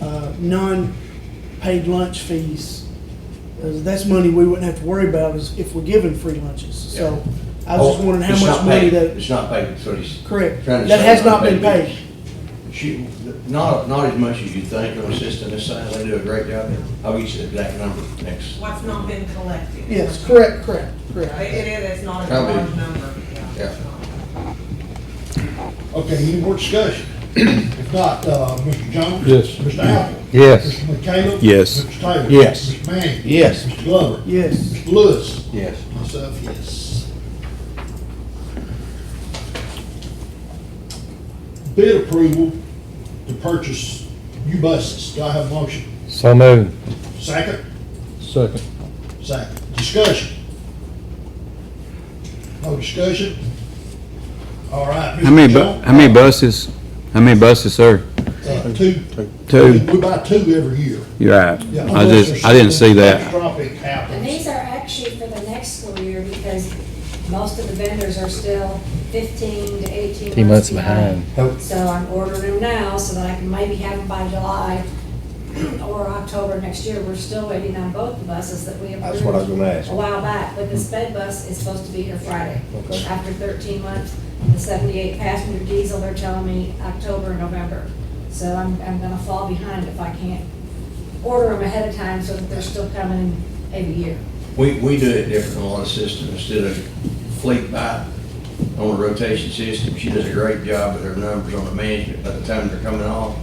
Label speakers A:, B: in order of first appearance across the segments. A: uh, non-paid lunch fees. Uh, That's money we wouldn't have to worry about is if we're giving free lunches. So I was just wondering how
B: Oh, It's
A: much
B: not
A: money
B: paid.
A: that,
B: It's not paid, so he's.
A: correct,
B: trying to
A: that
B: say
A: has
B: it's
A: not been paid.
B: She, not, not as much as you think, your assistant, this side, they do a great job. I'll get you the exact number next.
C: What's not been collected?
A: Yes, correct, correct,
C: It
A: correct.
C: it is, it's not a
B: Probably.
C: large number.
B: Yeah.
D: Okay, any more discussion? If not, uh, Mr. Jones?
E: Yes.
D: Mr. Apple?
E: Yes.
D: Mr. McHale?
E: Yes.
D: Mr. Taylor?
E: Yes.
D: Mr. Manning?
E: Yes.
D: Mr. Glover?
A: Yes.
D: Mr. Lewis?
B: Yes.
D: Myself, yes. Bid approval to purchase new buses. Do I have a motion?
E: So moved.
D: Second?
E: Second.
D: Second. Discussion? No discussion? All right.
F: How
D: Mr.
F: many, bu-
D: Jones?
F: how many buses, how many buses, sir?
D: Uh, Two.
F: Two?
D: We buy two every year.
F: You're right.
D: Yeah,
F: I
D: unless
F: just,
D: there's
F: I didn't see
D: something
F: that.
D: catastrophic happens.
G: And these are actually for the next school year because most of the vendors are still fifteen to eighteen months behind. So I'm ordering them now so that I can maybe have them by July or October next year. We're still waiting on both the buses that we approved.
E: That's what I was gonna ask.
G: A while back, but the sped bus is supposed to be here Friday.
E: Okay.
G: After thirteen months, the seventy-eight passenger diesel, they're telling me October, November. So I'm, I'm gonna fall behind if I can't order them ahead of time so that they're still coming every year.
B: We, we do it different than a lot of systems, instead of fleet buy on a rotation system, she does a great job with her numbers on the management by the time they're coming off.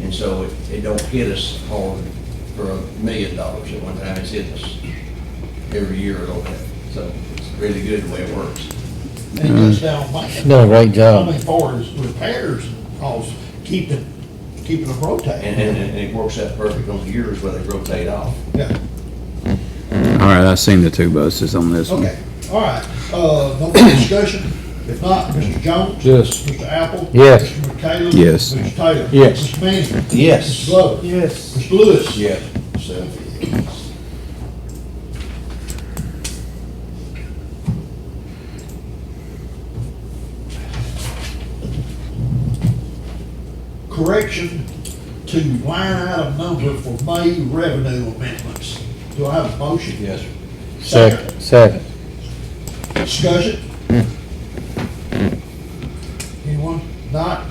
B: And so it, it don't hit us hard for a million dollars at one time, it's hit us every year or little bit. so it's really good the way it works.
D: And it goes down by.
E: Done a great
D: I
E: job.
D: mean, far as repairs and costs, keeping, keeping them
B: And,
D: rotating.
B: and, and it works out perfect on the years where they rotate off.
D: Yeah,
F: All right, I seen the two buses on this one.
D: okay, all right, uh, no more discussion? If not, Mr. Jones?
E: Yes.
D: Mr. Apple?
E: Yes.
D: Mr. McHale?
F: Yes.
D: Mr. Taylor?
E: Yes.
D: Mr. Manning? Mr.
B: Yes.
D: Glover?
A: Yes.
D: Mr. Lewis?
B: Yeah.
D: So, Correction to line item number for May revenue amendments. Do I have a motion?
B: Yes.
E: Second. Second.
D: Discussion? Anyone? Not?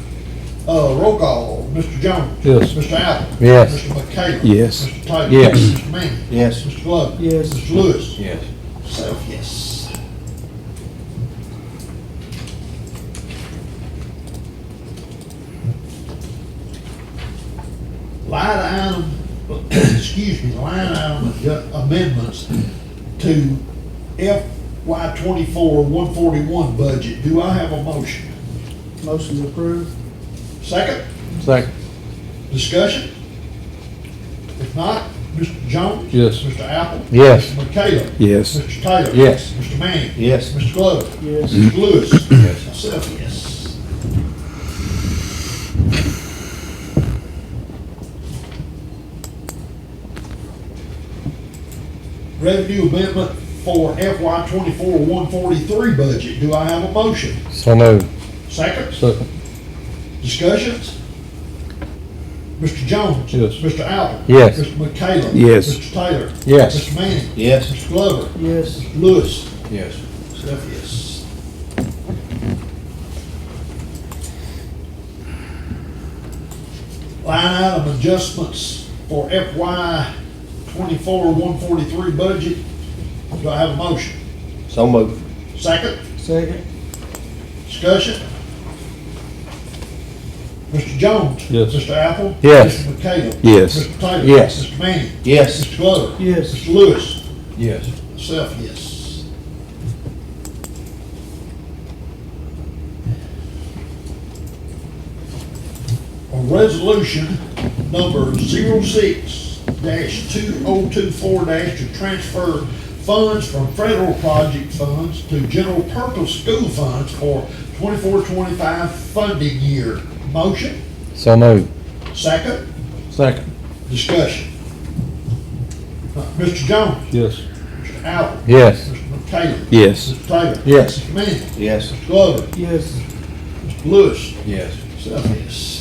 D: Uh, roll call, Mr. Jones.
E: Yes.
D: Mr. Apple.
E: Yes.
D: Mr. McHale.
F: Yes.
D: Mr. Taylor.
E: Yes.
D: Mr. Manning.
B: Yes.
D: Mr. Glover.
A: Yes.
D: Mr. Lewis.
B: Yes.
D: Self, yes. Line item, excuse me, line item adju- amendments to FY twenty-four, one forty-one budget. Do I have a motion?
A: Motion to approve.
D: Second?
E: Second.
D: Discussion? If not, Mr. Jones?
E: Yes.
D: Mr. Apple?
E: Yes.
D: Mr. McHale?
F: Yes.
D: Mr. Taylor?
E: Yes.
D: Mr. Manning?
E: Yes.
D: Mr. Glover?
A: Yes.
D: Mr. Lewis? Yes. Myself, yes. Revenue amendment for FY twenty-four, one forty-three budget. Do I have a motion?
E: So moved.
D: Second?
E: Second.
D: Discussions? Mr. Jones?
E: Yes.
D: Mr. Albert?
E: Yes.
D: Mr. McHale?
F: Yes.
D: Mr. Taylor?
E: Yes.
D: Mr. Manning?
B: Yes.
D: Mr. Glover?
A: Yes.
D: Lewis?
B: Yes.
D: Steph, yes. Line item adjustments for FY twenty-four, one forty-three budget. Do I have a motion?
E: So moved.
D: Second?
A: Second.
D: Discussion? Mr. Jones?
E: Yes.
D: Mr. Apple?
E: Yes.
D: Mr. McHale?
F: Yes.
D: Mr. Taylor?
E: Yes.
D: Mr. Manning?
E: Yes.
D: Mr. Glover?
A: Yes.
D: Mr. Lewis?
E: Yes.
D: Myself, yes. A resolution number zero-six dash two-oh-two-four dash to transfer funds from federal project funds to general purpose school funds for twenty-four, twenty-five funding year. Motion,
E: So moved.
D: second,
E: Second.
D: discussion. Uh, Mr. Jones,
E: Yes.
D: Mr. Allen.
E: Yes.
D: Mr. McHale.
F: Yes.
D: Mr. Taylor.
E: Yes.
D: Mr. Manning.
B: Yes.
D: Mr. Glover.
A: Yes.
D: Lewis.
B: Yes.
D: Self, yes.